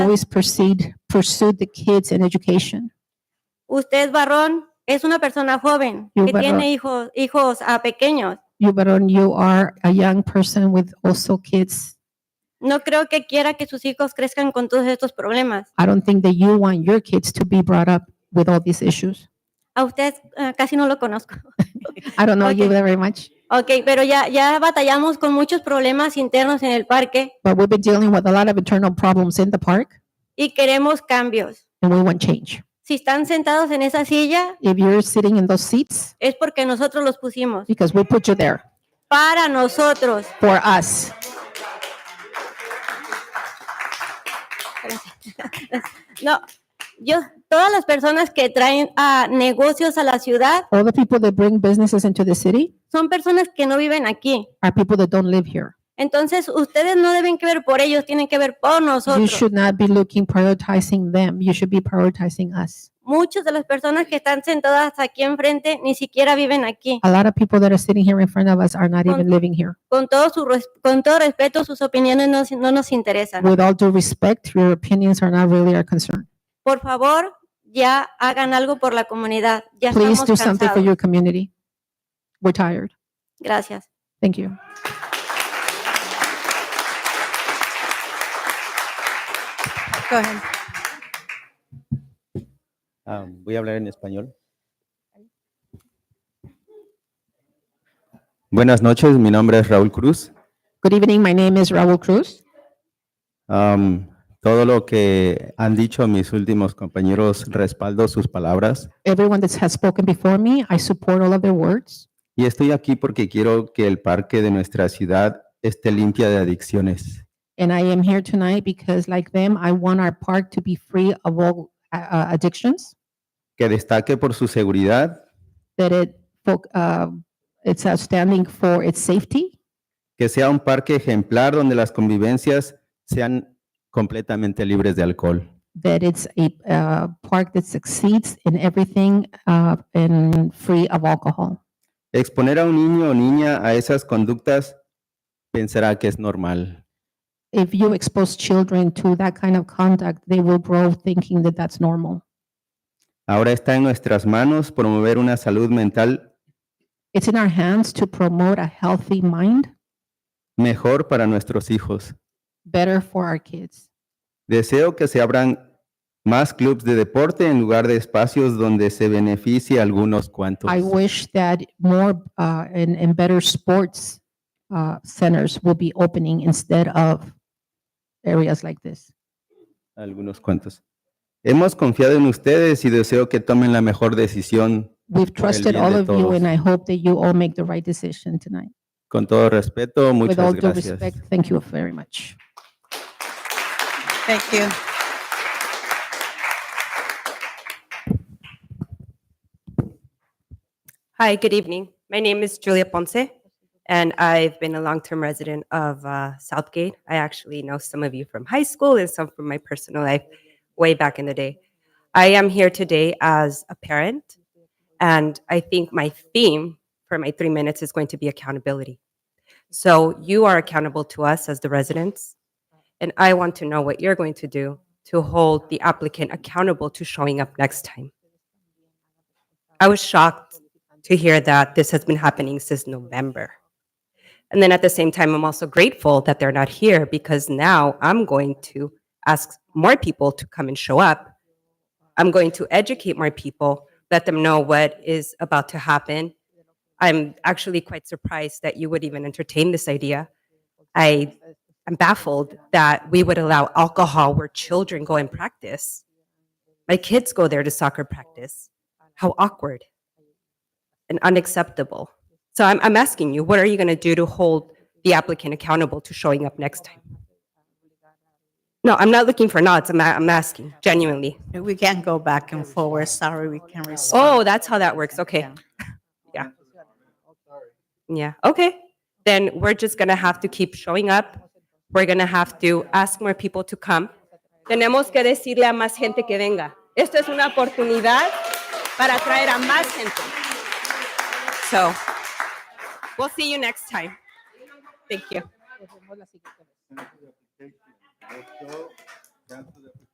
always pursued, pursued the kids and education. Usted es varón, es una persona joven Yo que varón. tiene hijos, hijos ah, pequeños. You, Baron, you are a young person with also kids. No creo que quiera que sus hijos crezcan con todos estos problemas. I don't think that you want your kids to be brought up with all these issues. A usted ah, casi no lo conozco. I don't know you Okay. very much, Ok, pero ya, ya batallamos con muchos problemas internos en el parque but we've been dealing with a lot of internal problems in the park y queremos cambios. and we want change. Si están sentados en esa silla, If you're sitting in those seats, es porque nosotros los pusimos. because we put you there Para nosotros. for us. No, yo, todas las personas que traen ah, negocios a la ciudad All the people that bring businesses into the city son personas que no viven aquí. are people that don't live here. Entonces, ustedes no deben que ver por ellos, tienen que ver por You nosotros. should not be looking, prioritizing them. You should be prioritizing us. Muchas de las personas que están sentadas aquí enfrente ni siquiera viven aquí. A lot of people that are sitting here in front of us are not Con- even living here. Con todo, su res- con todo respeto, sus opiniones no, no nos interesan. With all due respect, your opinions are not really our concern. Por favor, ya hagan algo por la comunidad. Ya Please do estamos something for cansados. your community. We're tired. Gracias. Thank you. Go ahead. Ah, voy a hablar en español. Buenas noches, mi nombre es Raúl Cruz. Good evening. My name is Raul Cruz. Am, todo lo que han dicho mis últimos compañeros respaldo sus palabras Everyone that has spoken before me, I support all of their words. y estoy aquí porque quiero que el parque de nuestra ciudad esté limpia de adicciones. And I am here tonight because like them, I want our park to be free of all uh, uh, addictions, Que destaque por su seguridad, that it, fo- uh, it's outstanding for its safety, que sea un parque ejemplar donde las convivencias sean completamente libres de alcohol. that it's a uh, park that succeeds in everything uh, and free of alcohol. Exponer a un niño o niña a esas conductas pensará que es normal. If you expose children to that kind of conduct, they will grow thinking that that's normal. Ahora está en nuestras manos promover una salud mental It's in our hands to promote a healthy mind, mejor para nuestros hijos. better for our kids. Deseo que se abran más clubes de deporte en lugar de espacios donde se beneficie a algunos cuantos. I wish that more uh, and, and better sports uh, centers will be opening instead of areas like this. Algunos cuantos. Hemos confiado en ustedes y deseo que tomen la mejor decisión. We've Por el trusted bien all de of you, and todos. I hope that you all make the right decision tonight. Con todo respeto, With all muchas due gracias. respect, thank you very much. Thank you. Hi, good evening. My name is Julia Ponce, and I've been a long-term resident of uh, Southgate. I actually know some of you from high school and some from my personal life way back in the day. I am here today as a parent, and I think my theme for my three minutes is going to be accountability. So you are accountable to us as the residents, and I want to know what you're going to do to hold the applicant accountable to showing up next time. I was shocked to hear that this has been happening since November. And then at the same time, I'm also grateful that they're not here because now I'm going to ask more people to come and show up. I'm going to educate more people, let them know what is about to happen. I'm actually quite surprised that you would even entertain this idea. I am baffled that we would allow alcohol where children go and practice. My kids go there to soccer practice. How awkward and unacceptable. So I'm, I'm asking you, what are you going to do to hold the applicant accountable to showing up next time? No, I'm not looking for nods. I'm, a- I'm asking genuinely. We can't go back and forward. Sorry, we can't Oh, respond. that's how that works. Okay. Yeah. Okay. Then we're just going to have to keep showing up. We're going to have to ask more people to come. Tenemos que decirle a más gente que venga. Esto es una oportunidad para atraer a más gente. So, we'll see you next time. Thank you.